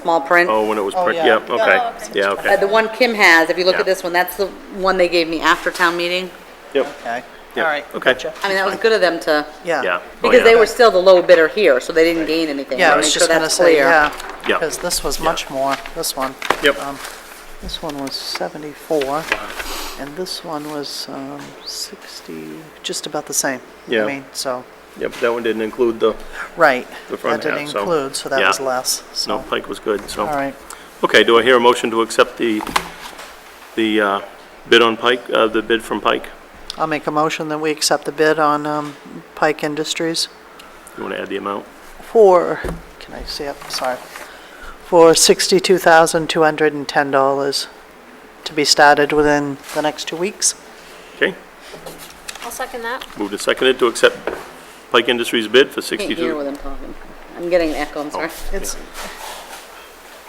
small print. Oh, when it was, Oh, prick- yeah. yep, okay, yeah, Uh, okay. The one Kim has, if you look Yeah. at this one, that's the one they gave me after town meeting. Yep, Okay, all Yeah, right. okay. gotcha. I mean, that was good of them to, yeah. Yeah. Oh, because yeah. they were still the low bidder here, so they didn't gain anything. Yeah, I Wanna was make just sure gonna that's say, clear. yeah. Yeah. Because this was much more, this one. Yep. Um, This one was 74, and this one was um, 60, just about the same. Yeah. I mean, so, Yep, that one didn't include the, right. The front That half, didn't so- include, so that was yeah. less, so. no, Pike was good, so. All right, Okay, do I hear a motion to accept the, the uh, bid on Pike, uh, the bid from Pike? I'll make a motion that we accept the bid on um, Pike Industries You want to add the amount? for, can I see up, sorry, for $62,210 to be started within the next two weeks. Okay, I'll second that. moved and seconded to accept Pike Industries bid for Can't hear what 62. I'm talking. I'm getting an echo, Oh. I'm sorry. It's,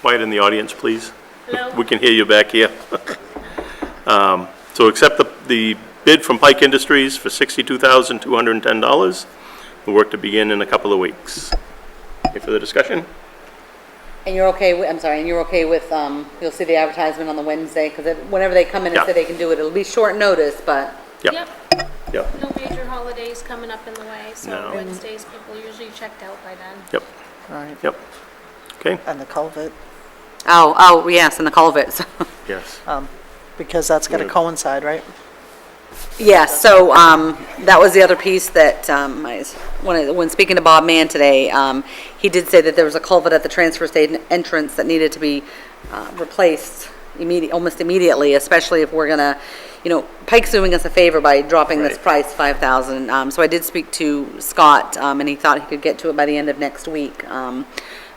Quiet in the audience, please. Hello? We can hear you back here. Um, So accept the, the bid from Pike Industries for $62,210. The work to begin in a couple of weeks. Any further discussion? And you're okay, wi- I'm sorry, and you're okay with, um, you'll see the advertisement on the Wednesday, because whenever they come in and Yeah. say they can do it, it'll be short notice, but Yeah. Yep, Yep. no major holidays coming up in the way, No. so Wednesdays, people usually checked out by then. Yep, all right, yep. Okay? and the culvert. Oh, oh, yes, and the culverts. Yes. Because that's going Yeah. to coincide, right? Yeah, so um, that was the other piece that, um, I- when I- when speaking to Bob Mann today, um, he did say that there was a culvert at the transfer station entrance that needed to be uh, replaced immediate, almost immediately, especially if we're gonna, you know, Pike's doing us a favor by dropping this Right. price, 5,000. Um, So I did speak to Scott, um, and he thought he could get to it by the end of next week. Um,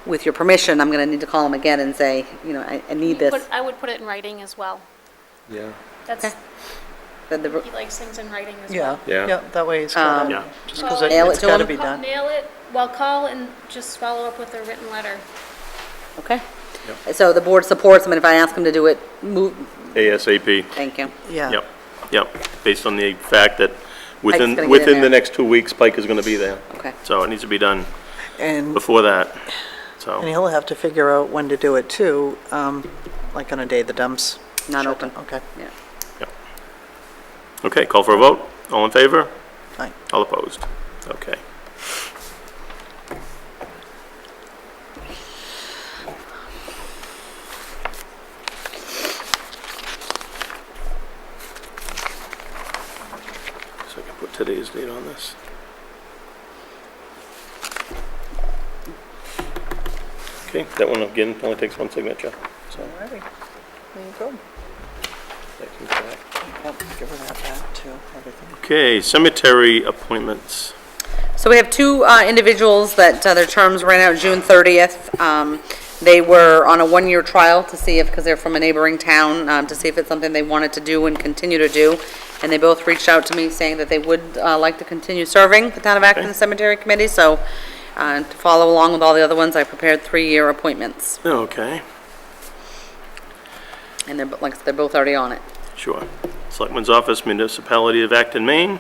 With your permission, I'm gonna need to call him again and say, you know, I I need this, But I would put it in writing as well. Yeah. That's, that the- he likes things in writing as Yeah. well. Yeah. Yeah, that way it's got Yeah. to, just because Well, Um, Nail it it's to got to them. be Ca- done. Nail it, well, call and just follow up with a written letter. Okay. So the board supports him, and if I ask him to do it, move, ASAP. thank you. Yeah, Yep, yep, based on the fact that gonna get within, in within the there. next two weeks, Pike is gonna be there. Okay. So it needs to be done and, before that, and so, he'll have to figure out when to do it too, um, like on a day the dumps. Not shut down. open. Okay. Yeah. yep. Okay, call for a vote, all in favor, Aye. all opposed, okay. So I can put today's date on this. Okay, that one again only takes one signature, so. All righty. There you go. that can go back. Yep, give her that back too, everything. Okay, cemetery appointments. So we have two uh, individuals that uh, their terms ran out June 30th. Um, They were on a one-year trial to see if, because they're from a neighboring town, um, to see if it's something they wanted to do and continue to do. And they both reached out to me saying that they would uh, like to continue serving the Town of Acton Okay. Cemetery Committee. So uh, to follow along with all the other ones, I prepared three-year appointments. Okay, And they're, bo- like, I said, they're both already on it. sure. Selectman's Office, Municipality of Acton, Maine,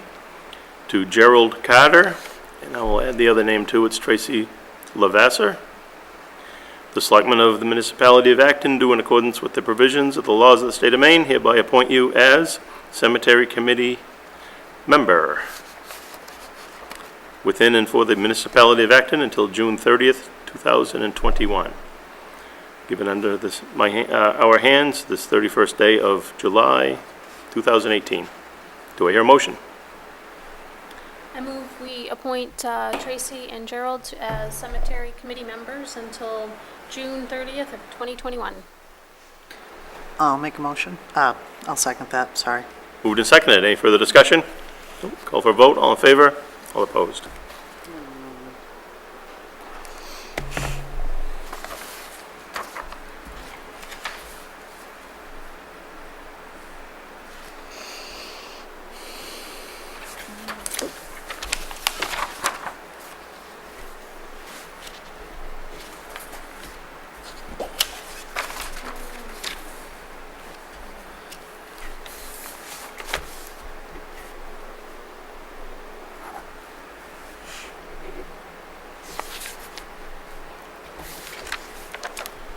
to Gerald Carter, and I will add the other name too, it's Tracy Lavasser. The Selectmen of the Municipality of Acton do in accordance with the provisions of the laws of the state of Maine hereby appoint you as Cemetery Committee member within and for the Municipality of Acton until June 30th, 2021. given under this, my, ha- uh, our hands this 31st day of July 2018. Do I hear a motion? I move we appoint uh, Tracy and Gerald to- as cemetery committee members until June 30th of 2021. I'll make a motion. Uh, I'll second that, sorry. Moved and seconded. Any further discussion? Nope. Call for a vote. All in favor? All opposed?